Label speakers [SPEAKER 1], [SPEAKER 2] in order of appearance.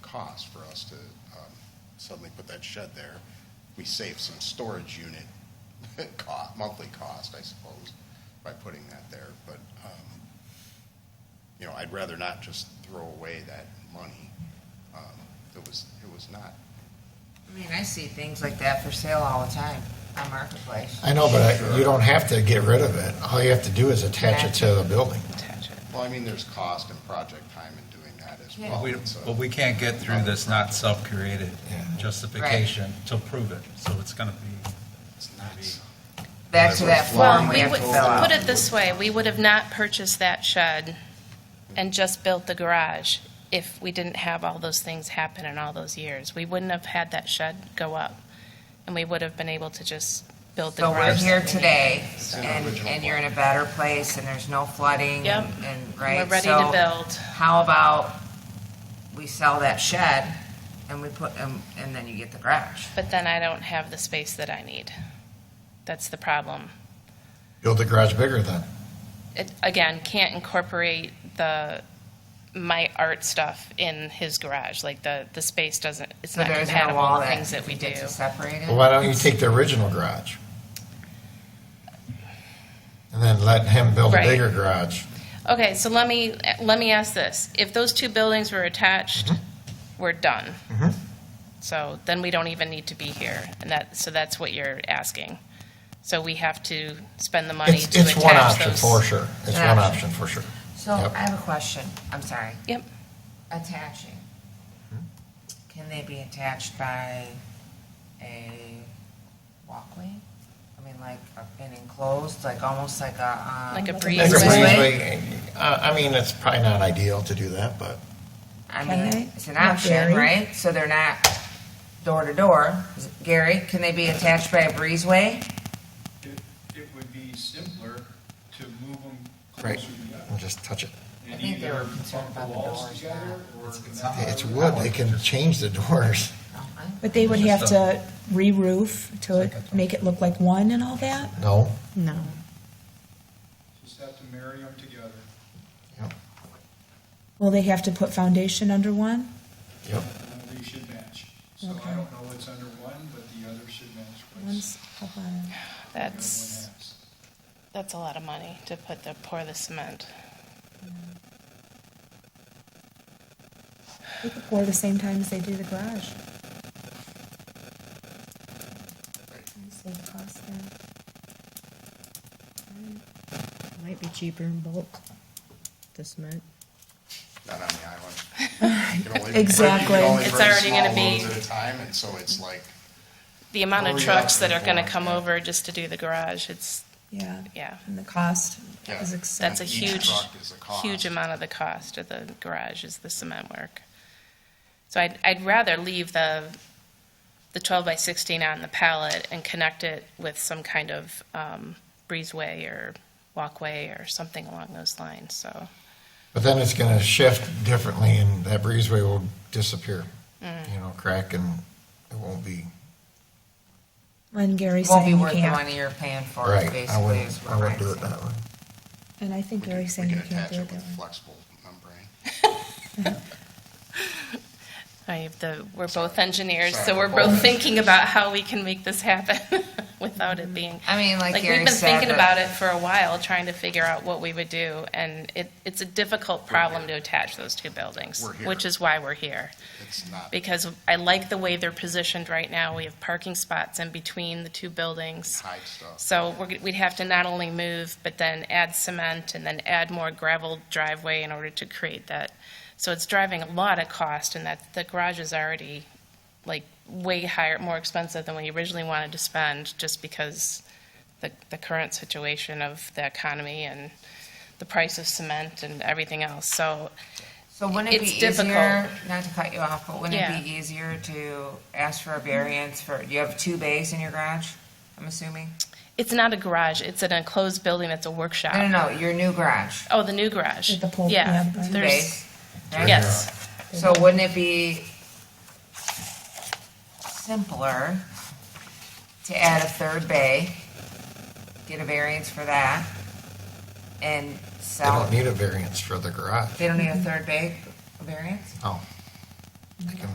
[SPEAKER 1] cost for us to um, suddenly put that shed there. We saved some storage unit cost, monthly cost, I suppose, by putting that there. But, um, you know, I'd rather not just throw away that money. Um, It was, it was not
[SPEAKER 2] I mean, I see things like that for sale all the time on Marketplace.
[SPEAKER 3] I know, but I- you don't have to get rid of it. All you have to do is attach it to the building.
[SPEAKER 1] Well, I mean, there's cost and project time in doing that as
[SPEAKER 2] Yeah.
[SPEAKER 1] well.
[SPEAKER 4] We-
[SPEAKER 1] It's a-
[SPEAKER 4] But we can't get through this not self-created justification to prove it, so it's going to be,
[SPEAKER 1] it's not-
[SPEAKER 2] Back to that
[SPEAKER 1] Well,
[SPEAKER 2] form
[SPEAKER 5] Well,
[SPEAKER 2] we
[SPEAKER 5] we
[SPEAKER 2] have
[SPEAKER 5] would,
[SPEAKER 2] to fill out.
[SPEAKER 5] put it this way, we would have not purchased that shed and just built the garage if we didn't have all those things happen in all those years. We wouldn't have had that shed go up, and we would have been able to just build the
[SPEAKER 2] So we're
[SPEAKER 5] garage.
[SPEAKER 2] here today,
[SPEAKER 1] It's in the
[SPEAKER 2] and,
[SPEAKER 1] original
[SPEAKER 2] and you're in a better place, and there's no flooding,
[SPEAKER 5] Yep.
[SPEAKER 2] and, and, right?
[SPEAKER 5] We're ready
[SPEAKER 2] So
[SPEAKER 5] to build.
[SPEAKER 2] How about we sell that shed, and we put, and, and then you get the garage?
[SPEAKER 5] But then I don't have the space that I need. That's the problem.
[SPEAKER 3] Build the garage bigger then.
[SPEAKER 5] It, again, can't incorporate the, my art stuff in his garage, like the, the space doesn't, it's
[SPEAKER 2] So
[SPEAKER 5] not
[SPEAKER 2] there's no
[SPEAKER 5] compatible
[SPEAKER 2] wall
[SPEAKER 5] with
[SPEAKER 2] that
[SPEAKER 5] things that we do.
[SPEAKER 2] gets us separated?
[SPEAKER 3] Well, why don't you take the original garage? And then let him build a
[SPEAKER 5] Right.
[SPEAKER 3] bigger garage.
[SPEAKER 5] Okay, so let me, let me ask this. If those two buildings were attached, we're done.
[SPEAKER 3] Mhm.
[SPEAKER 5] So then we don't even need to be here, and that, so that's what you're asking. So we have to spend the money to
[SPEAKER 3] It's, it's one
[SPEAKER 5] attach
[SPEAKER 3] option for
[SPEAKER 5] those.
[SPEAKER 3] sure. It's
[SPEAKER 2] Yeah.
[SPEAKER 3] one option for sure.
[SPEAKER 2] So
[SPEAKER 3] Yep.
[SPEAKER 2] I have a question, I'm sorry.
[SPEAKER 5] Yep.
[SPEAKER 2] Attaching. Can they be attached by a walkway? I mean, like a- an enclosed, like almost like a, um.
[SPEAKER 5] Like a
[SPEAKER 3] Like a
[SPEAKER 5] Breezeway.
[SPEAKER 3] breezeway, uh, I mean, it's probably not ideal to do that, but
[SPEAKER 2] I
[SPEAKER 6] Can
[SPEAKER 2] mean,
[SPEAKER 6] they?
[SPEAKER 2] it's an
[SPEAKER 6] Not
[SPEAKER 2] option,
[SPEAKER 6] Gary?
[SPEAKER 2] right? So they're not door to door. Is it- Gary, can they be attached by a breezeway?
[SPEAKER 7] It, it would be simpler to move them
[SPEAKER 3] Right.
[SPEAKER 7] closer together.
[SPEAKER 3] I'll just touch it.
[SPEAKER 2] I
[SPEAKER 7] And
[SPEAKER 2] think they were
[SPEAKER 7] either
[SPEAKER 2] concerned
[SPEAKER 7] bump
[SPEAKER 2] about
[SPEAKER 7] the
[SPEAKER 2] the
[SPEAKER 7] walls
[SPEAKER 2] doors,
[SPEAKER 7] together or. connect
[SPEAKER 3] It's
[SPEAKER 7] them.
[SPEAKER 3] wood. They can change the doors.
[SPEAKER 6] But they would have to re-roof to make it look like one and all that?
[SPEAKER 3] No.
[SPEAKER 6] No.
[SPEAKER 7] Just have to marry them together.
[SPEAKER 6] Will they have to put foundation under one?
[SPEAKER 3] Yep.
[SPEAKER 7] and They should match. So I
[SPEAKER 6] Okay.
[SPEAKER 7] don't know what's under one, but the other should match. what's
[SPEAKER 6] One's up on,
[SPEAKER 7] the other one
[SPEAKER 5] That's,
[SPEAKER 7] has.
[SPEAKER 5] that's a lot of money to put the, pour the cement.
[SPEAKER 6] they could pour the same time as they do the garage. Save cost there.
[SPEAKER 8] Might be cheaper in bulk, the cement.
[SPEAKER 1] not on the island. You can only-
[SPEAKER 6] Exactly.
[SPEAKER 1] you can only
[SPEAKER 5] It's
[SPEAKER 1] bring
[SPEAKER 5] already gonna
[SPEAKER 1] small
[SPEAKER 5] be-
[SPEAKER 1] loads At a time, and so it's like,
[SPEAKER 5] The amount of
[SPEAKER 1] Hurry up
[SPEAKER 5] trucks that are gonna
[SPEAKER 1] before-
[SPEAKER 5] come over just to do the garage, it's,
[SPEAKER 6] Yeah,
[SPEAKER 5] yeah.
[SPEAKER 6] and the cost
[SPEAKER 1] Yeah.
[SPEAKER 6] is
[SPEAKER 5] That's a
[SPEAKER 6] excessive.
[SPEAKER 1] each
[SPEAKER 5] huge,
[SPEAKER 1] truck is a cost.
[SPEAKER 5] huge amount of the cost of the garage is the cement work. So I'd, I'd rather leave the, the twelve by sixteen out in the pallet and connect it with some kind of, um, breezeway or walkway or something along those lines, so.
[SPEAKER 3] But then it's going to shift differently, and that breezeway will disappear. You know, crack, and it won't be
[SPEAKER 6] When Gary's
[SPEAKER 2] Won't be
[SPEAKER 6] saying you
[SPEAKER 2] worth the
[SPEAKER 6] can't.
[SPEAKER 2] money you're paying for it,
[SPEAKER 3] right. I
[SPEAKER 2] basically,
[SPEAKER 3] wouldn't.
[SPEAKER 2] is what
[SPEAKER 3] I wouldn't do
[SPEAKER 2] I'm
[SPEAKER 3] it that
[SPEAKER 2] saying.
[SPEAKER 3] way.
[SPEAKER 6] And I think
[SPEAKER 1] we can
[SPEAKER 6] Gary's
[SPEAKER 1] we
[SPEAKER 6] saying
[SPEAKER 1] can
[SPEAKER 6] you can't
[SPEAKER 1] attach
[SPEAKER 6] do
[SPEAKER 1] it
[SPEAKER 6] it that
[SPEAKER 1] with
[SPEAKER 6] way.
[SPEAKER 1] flexible membrane.
[SPEAKER 5] I have the, we're both engineers, so
[SPEAKER 1] Sorry,
[SPEAKER 5] we're
[SPEAKER 1] we're both
[SPEAKER 5] both thinking about how we can make this happen without it being.
[SPEAKER 2] I mean, like
[SPEAKER 5] Like,
[SPEAKER 2] Gary
[SPEAKER 5] we've been
[SPEAKER 2] said, uh,
[SPEAKER 5] thinking
[SPEAKER 2] that-
[SPEAKER 5] about it for a while, trying to figure out what we would do, and it, it's a difficult problem to attach those two buildings,
[SPEAKER 1] We're here.
[SPEAKER 5] which is why we're here.
[SPEAKER 1] It's not,
[SPEAKER 5] Because I like the way they're positioned right now. We have parking spots in between the two buildings.
[SPEAKER 1] hide stuff.
[SPEAKER 5] So we're, g- we'd have to not only move, but then add cement and then add more gravel driveway in order to create that. So it's driving a lot of cost and that, the garage is already like way higher, more expensive than we originally wanted to spend just because the, the current situation of the economy and the price of cement and everything else. So
[SPEAKER 2] So wouldn't it be
[SPEAKER 5] It's difficult.
[SPEAKER 2] easier, not to cut you off, but wouldn't
[SPEAKER 5] Yeah.
[SPEAKER 2] it be easier to ask for a variance for, you have two bays in your garage, I'm assuming?
[SPEAKER 5] it's not a garage, it's an enclosed building that's a workshop.
[SPEAKER 2] No, no, no, your new garage,
[SPEAKER 5] Oh, the new garage.
[SPEAKER 6] With the pool,
[SPEAKER 5] Yeah.
[SPEAKER 6] yeah.
[SPEAKER 2] two
[SPEAKER 5] There's,
[SPEAKER 2] bays. right?
[SPEAKER 5] yes,
[SPEAKER 2] So wouldn't it be simpler to add a third bay, get a variance for that, and
[SPEAKER 3] They
[SPEAKER 2] sell?
[SPEAKER 3] don't need a variance for the garage.
[SPEAKER 2] They don't need a third bay variance?
[SPEAKER 3] Oh, I can